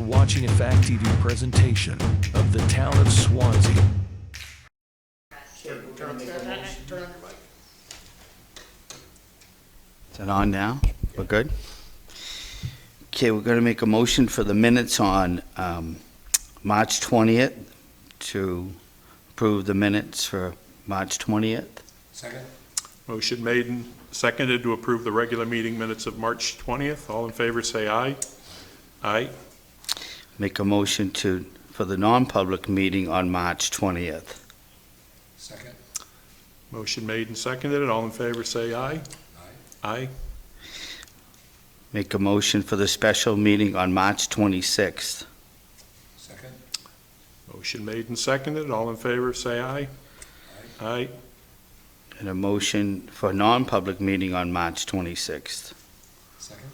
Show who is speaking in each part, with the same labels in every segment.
Speaker 1: watching a Fact TV presentation of the town of Swansea.
Speaker 2: Is it on now? We're good? Okay, we're going to make a motion for the minutes on um, March 20th to approve the minutes for March 20th.
Speaker 3: Second?
Speaker 4: Motion made and seconded to approve the regular meeting minutes of March 20th. All in favor, say aye. Aye.
Speaker 2: Make a motion to, for the non-public meeting on March 20th.
Speaker 3: Second?
Speaker 4: Motion made and seconded. All in favor, say aye. Aye.
Speaker 2: Make a motion for the special meeting on March 26th.
Speaker 3: Second?
Speaker 4: Motion made and seconded. All in favor, say aye. Aye.
Speaker 2: And a motion for non-public meeting on March 26th.
Speaker 3: Second?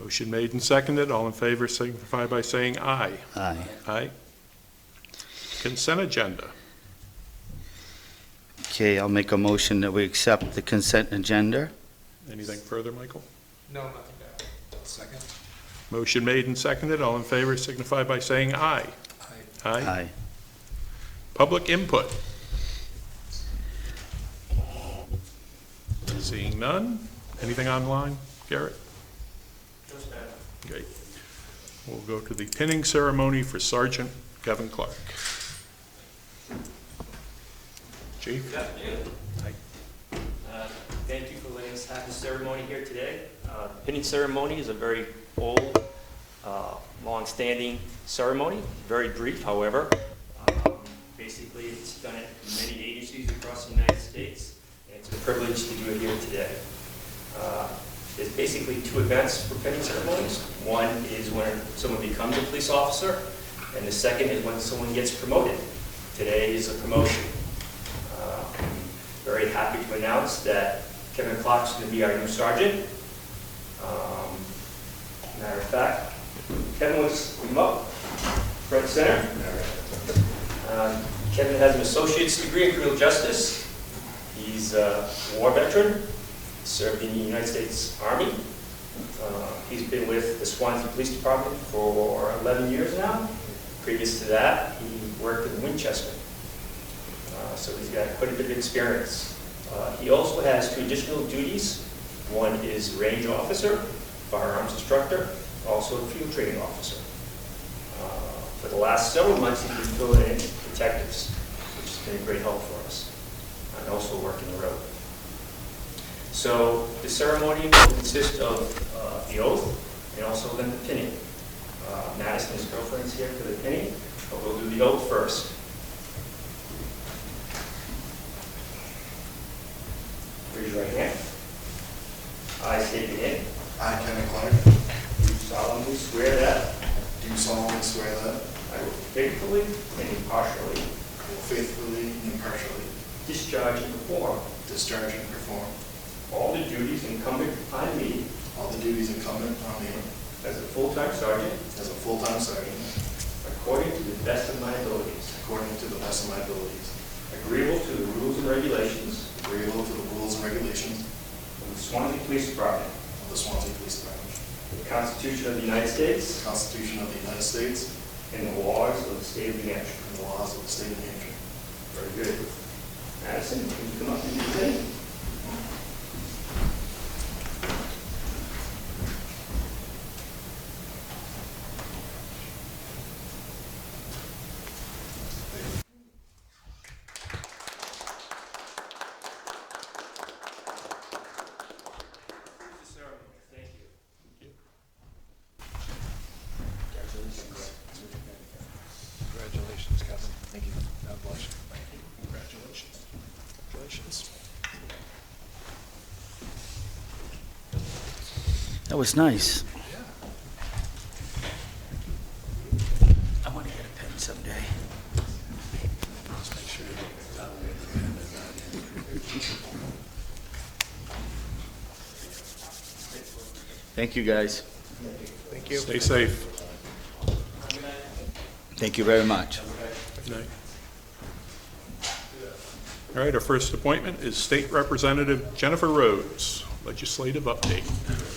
Speaker 4: Motion made and seconded. All in favor, signify by saying aye.
Speaker 2: Aye.
Speaker 4: Aye. Consent agenda.
Speaker 2: Okay, I'll make a motion that we accept the consent agenda.
Speaker 4: Anything further, Michael?
Speaker 3: No, nothing down. Second?
Speaker 4: Motion made and seconded. All in favor, signify by saying aye.
Speaker 3: Aye.
Speaker 4: Aye. Public input. Seeing none. Anything online, Garrett? Great. We'll go to the pinning ceremony for Sergeant Kevin Clark. Chief?
Speaker 5: Good afternoon. Uh, Thank you for letting us have this ceremony here today. Uh, the Pinning ceremony is a very old, uh, long-standing ceremony, very brief, however. Um, Basically, it's done at many agencies across the United States, and it's a privilege to do it here today. Uh, There's basically two events for pinning ceremonies. One is when someone becomes a police officer, and the second is when someone gets promoted. Today is a promotion. Uh, Very happy to announce that Kevin Clark's going to be our new sergeant. Um, Matter of fact, Kevin was remote, front and center. Um, Kevin has an associate's degree in criminal justice. He's a war veteran, served in the United States Army. Uh, He's been with the Swansea Police Department for 11 years now. Previous to that, he worked in Winchester. Uh, So he's got quite a bit of experience. Uh, He also has two additional duties. One is range officer, firearms instructor, also a field training officer. Uh, For the last several months, he's been filling in detectives, which has been a great help for us, and also working the road. So the ceremony will consist of uh, the oath and also then the pinning. Uh, Madison, his girlfriend's here for the pinning, but we'll do the oath first. Raise your right hand. I state your name.
Speaker 6: I, Kevin Clark,
Speaker 5: Do solemnly swear that
Speaker 6: do solemnly swear that
Speaker 5: I will faithfully and impartially
Speaker 6: I will faithfully and impartially
Speaker 5: discharge and perform
Speaker 6: discharge and perform
Speaker 5: all the duties incumbent upon me
Speaker 6: all the duties incumbent on me
Speaker 5: as a full-time sergeant
Speaker 6: as a full-time sergeant
Speaker 5: according to the best of my abilities,
Speaker 6: according to the best of my abilities,
Speaker 5: agreeable to the rules and regulations
Speaker 6: agreeable to the rules and regulations
Speaker 5: of the Swansea Police Department,
Speaker 6: of the Swansea Police Department,
Speaker 5: the Constitution of the United
Speaker 6: the
Speaker 5: States,
Speaker 6: Constitution of the United States,
Speaker 5: and the laws of the state of New Hampshire.
Speaker 6: and the laws of the state of New Hampshire.
Speaker 5: Very good. Madison, can you come up and do the thing? Thank you.
Speaker 3: Congratulations, Kevin. Thank you. God bless you. Congratulations. Congratulations.
Speaker 2: That was nice. I want to get a pen someday. Thank you, guys.
Speaker 4: Stay safe.
Speaker 2: Thank you very much.
Speaker 4: Good night. All right, our first appointment is State Representative Jennifer Rhodes, legislative update.